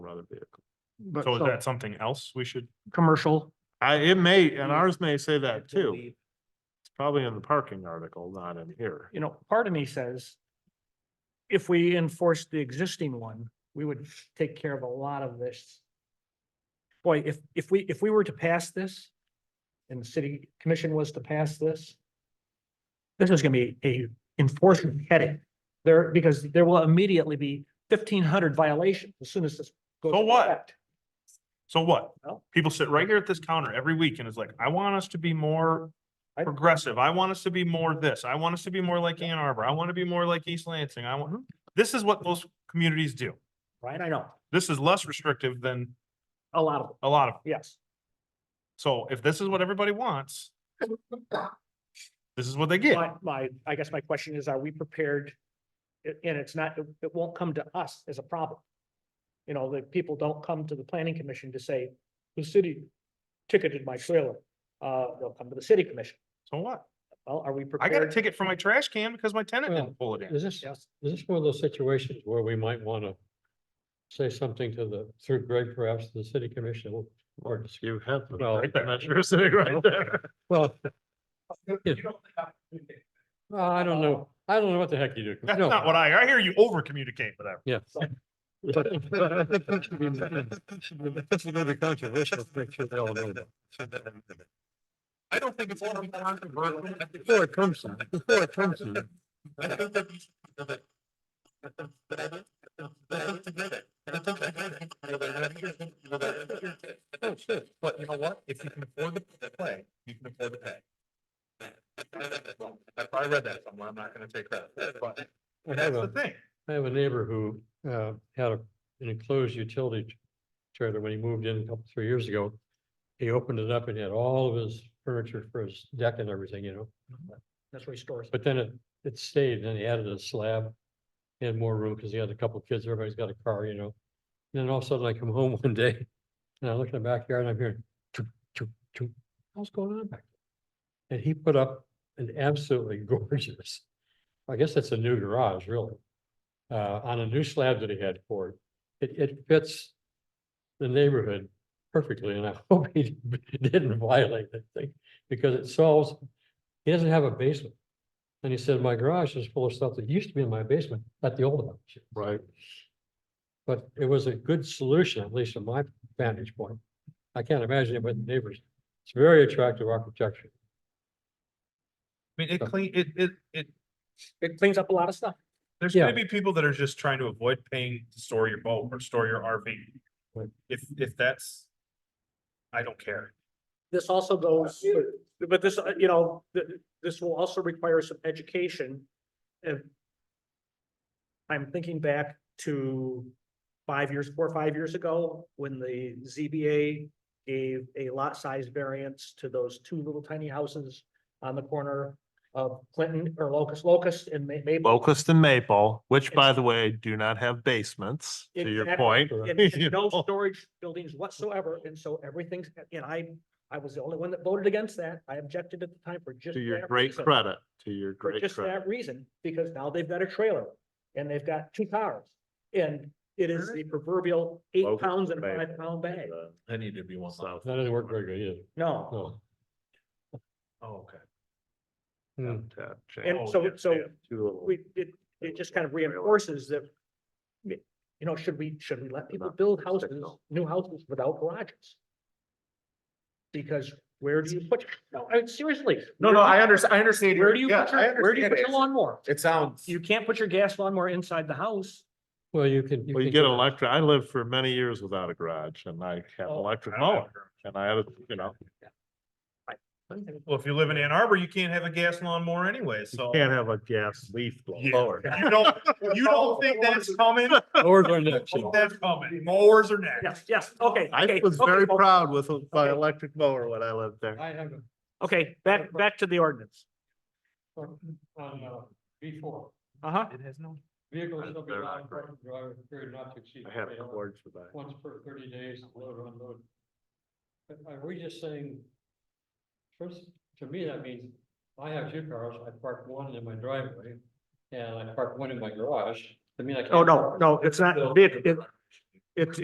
another vehicle. But So is so that something else we should? commercial, I, it may, and Yeah. ours may say that to too. leave. It's probably in the parking article, not in here. you know, part of me says if we enforce the existing one, we would take care of a lot of this. Boy, if, if we, if we were to pass this and the city commission was to pass this, this is gonna be a enforcement headache there, because there will immediately be fifteen hundred violations as soon as this. goes So into what? effect. So what? Well- People sit right here at this counter every week and it's like, I want us to be more I- progressive. I want us to be more this. I want us to be more like Ann Arbor. I want to be more like East Lansing. I want, this is what those communities do. Right, I know, This is less restrictive than a lot of them, a lot of, yes. so if this is what everybody wants, this is what they get. My, my, I guess my question is, are we prepared? A- And it's not, it- it won't come to us as a problem. You know, the people don't come to the planning commission to say, the city ticketed my trailer. Uh, they'll come to the city commission. So what? Well, are we I prepared? got a ticket for my trash can because my tenant Well, didn't pull it in. Is this, Yes. is this one of those situations where we might want to say something to the, through Greg perhaps, to the city commission? Or You have. Well- Right there. You're sitting right there. Well. Well, I don't know. I don't know what the heck you do. That's No. not what I, I hear you over communicate, whatever. Yeah. But- That's another controversial picture. they all know that. I don't think it's all controversial. Before it comes to- before it comes to- Oh, shit. But you know what? If you can afford the the play, you can afford the pay. I probably read that somewhere. I'm not gonna take credit, but I that's have the a, thing. I have a neighbor who, uh, had a- an enclosed utility t- trailer when he moved in a couple, three years ago. He opened it up and had all of his furniture for his deck and everything, you know? That's where he stores. it. But then it, it stayed, and then he added a slab. He had more room because he had a couple kids, everybody's got a car, you know. And then all of a sudden I come home one day and I look in the backyard and I'm hearing, choop, choop, choop. What's going on back there? And he put up an absolutely gorgeous, I guess that's a new garage, really. Uh, on a new slab that he had for it. It, it fits the neighborhood perfectly and I hope he didn't violate that thing because it solves, he doesn't have a basement. And he said, my garage is full of stuff that used to be in my basement at the old house. Right. But it was a good solution, at least from my vantage point. I can't imagine it with the neighbors. It's very attractive architecture. I mean, it clean, it, it, it, It cleans up a lot of stuff. there's Yeah. gonna be people that are just trying to avoid paying to store your boat or store your RV. Right. If, if that's, I don't care. This also goes, but this, uh, you know, th- this will also require some education. If- I'm thinking back to five years, four or five years ago, when the ZBA gave a lot size variance to those two little tiny houses on the corner of Clinton or Locust, Locust and May- Maple. Locust and Maple, which by the way, do not have basements, to your Exactly. point. And- and You No know? storage buildings whatsoever, and so everything's, and I, I was the only one that voted against that. I objected at the time for just. To your that great reason. credit, to your For great just credit. that reason, because now they've got a trailer and they've got two cars. And it is the proverbial eight Locust pounds in a bag. five pound bag. I need to be one. So- That doesn't work very good either. No, No. Oh, Okay. Hmm. Habitat change. And Oh, so- yeah, they so have two little- we, it, it just kind of Trailer. reinforces that. You know, should we, should we let people Not build realistic, houses, no. new houses without garages? Because where do you put, no, I- seriously. No, where no, do you- I understand, I understand. your- Where do you, yeah, put I your- where do you understand put your it. lawnmower? It sounds. You can't put your gas lawnmower inside the house. Well, you can. Well, you can get electric, I lived for many years without a garage and I had Oh. electric mower and I had, a you know, Well, if you live in Ann Arbor, you can't have a gas lawnmower anyway, you so. can't have a gas leaf blow Yeah. blower. You don't, you don't think that's coming? Doors are next, you know. That's coming. Mowers are next. Yes, yes, okay. I okay, was okay, very folks. proud with uh, my okay. electric mower when I lived there. I have a Okay, back, back to the ordinance. question on, uh, B four. Uh huh. It has no. Vehicles shall be They're allowed not in great. parking drive for a period not to exceed. I had a three hours. cord for that. once per thirty days, load or unload. But are we just saying? First, to me, that means I have two cars, I park one in my driveway and I park one in my garage. I mean, I can't. Oh, no, no, it's not, So- it, it, it's,